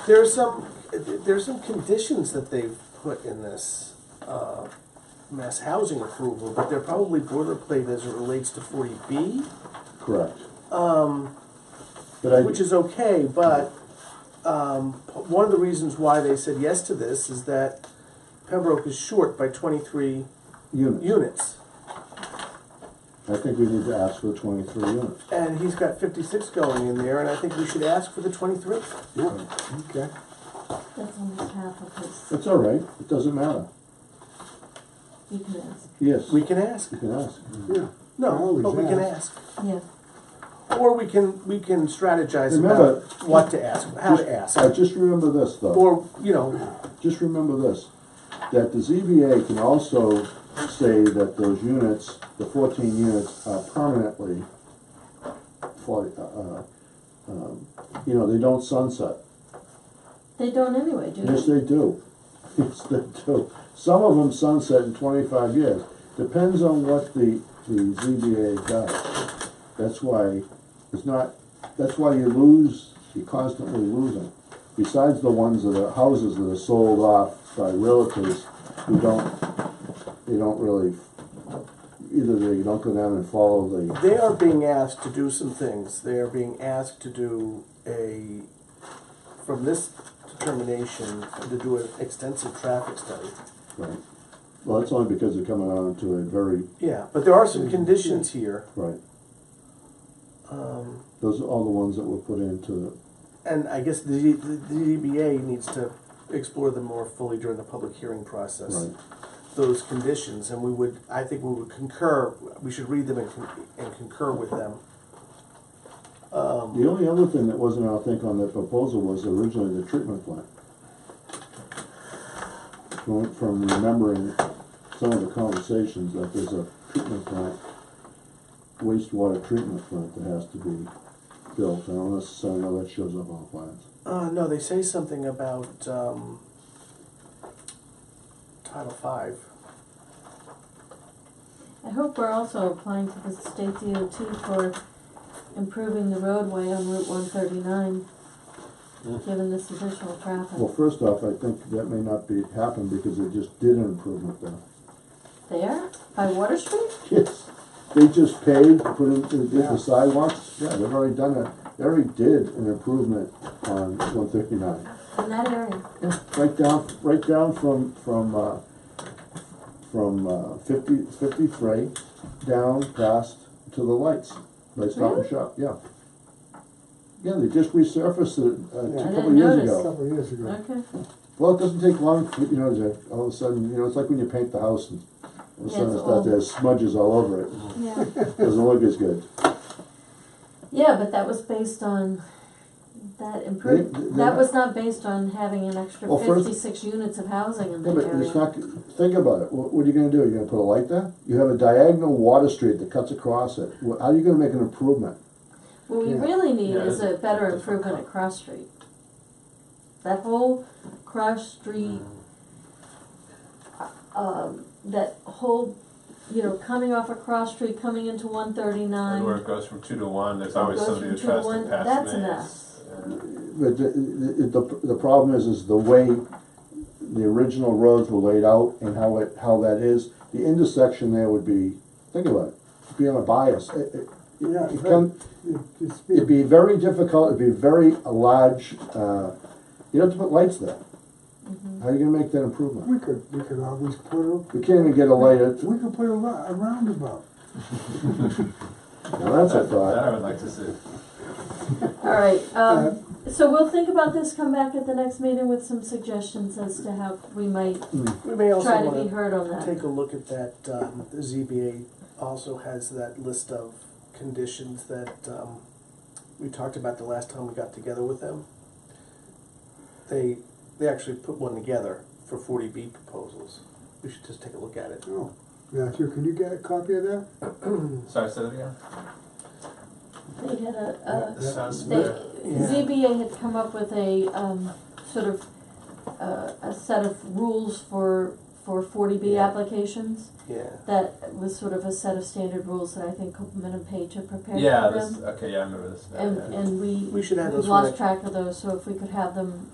There's some, there's some conditions that they've put in this, uh, mass housing approval, but they're probably boilerplate as it relates to forty B, Correct. But I, Um, which is okay, but, um, p- one of the reasons why they said yes to this is that Pembroke is short by twenty-three units, units, I think we need to ask for twenty-three units. and he's got fifty-six going in there, and I think we should ask for the twenty-three. Yeah. Okay. That's almost half of his, That's all right, it doesn't matter. you can ask, Yes, We you can ask, can ask. Yeah. no, Always but we can ask. ask, yeah, or we can, we can strategize Remember- about what to ask, how to ask. Just- I just remember this though, Or, you know, just remember this, that the ZBA can also say that those units, the fourteen units are permanently for, uh, uh, um, you know, they don't sunset. they don't anyway, do Yes, they? they do. Yes, they do. Some of them sunset in twenty-five years. Depends on what the, the ZBA does. That's why it's not, that's why you lose, you're constantly losing. Besides the ones that are, houses that are sold off by realtors who don't, they don't really, either they don't go down and follow the, they are being asked to do some things. They are being asked to do a, from this determination, to do an extensive traffic study. right. Well, that's only because they're coming on to a very, Yeah, but there are some conditions here, right. um, Those are all the ones that were put into, and I guess the, the DBA needs to explore them more fully during the public hearing process. right. Those conditions, and we would, I think we would concur, we should read them and, con- and concur with them. Uh, The only other thing that wasn't, I think, on that proposal was originally the treatment plant. From, from remembering some of the conversations, that there's a treatment plant, wastewater treatment plant that has to be built, and unless, I know that shows up on plans. Uh, no, they say something about, um, Title Five. I hope we're also applying to the state DOT for improving the roadway on Route one thirty-nine, given this additional Well, traffic. first off, I think that may not be, happen because they just did an improvement there. There, by Water Street? Yes, they just paved, put in, they did Yeah. the sidewalks, yeah, they've already done it, they already did an improvement on one thirty-nine. In that area, Yeah, right down, right down from, from, uh, from, uh, fifty, fifty-three, down past to the lights, by Stop and Really? Shop, yeah. Yeah, they just resurfaced it, uh, Yeah. a I couple didn't years notice. A ago. couple of years ago. okay, Well, it doesn't take long, for- you know, to, all of a sudden, you know, it's like when you paint the house and all of a Yeah, sudden it's it's not, old. there's smudges all over it, yeah. doesn't look as good. Yeah, but that was based on that They- improve, they- that was not based on having an extra Well, first- fifty-six units of housing in Yeah, that but it's area. not, think about it, what, what are you gonna do, you gonna put a light there? You have a diagonal water street that cuts across it, Wh- how are you gonna make an improvement? What we Yeah. really need Yeah, is a that's- better that's improvement fine. at Cross Street. That whole Cross Street, um, that whole, you know, coming off of Cross Street, coming into one And where thirty-nine. it goes from two to one, there's It always goes somebody from that two to tries one, to pass that's me. an It's, uh, But the, the, the- the problem is, is the way the original roads were laid out and how it, how that is, the intersection there would be, think about it, it'd be on a bias. It- it- Yeah, it come- It- it's It'd be been- very difficult, it'd be very a large, uh, you'd have to put lights there. Mm-hmm. How are you gonna make that improvement? We could, we could always put a, We can't even get a light at, we could put a ro- a roundabout. now that's a that- That I thought. would like to see. Alright, um, so we'll think about this, come back at the next meeting with some suggestions as to how we might We may also try to be wanna heard on that. take a look at that, um, the ZBA also has that list of conditions that, um, we talked about the last time we got together with them. They, they actually put one together for forty B proposals. We should just take a look at it. Oh, Matthew, can you get a copy of that? Sorry, say that again? They had a, a This sounds They, familiar. Yeah. ZBA had come up with a, um, sort of, uh, a set of rules for, for forty B Yeah. applications. Yeah. That was sort of a set of standard rules that I think Copeland and Page had prepared for them. Yeah, this, okay, yeah, I remember this now, And, yeah. and we, We should have we those for lost next- track of those, so if we could have them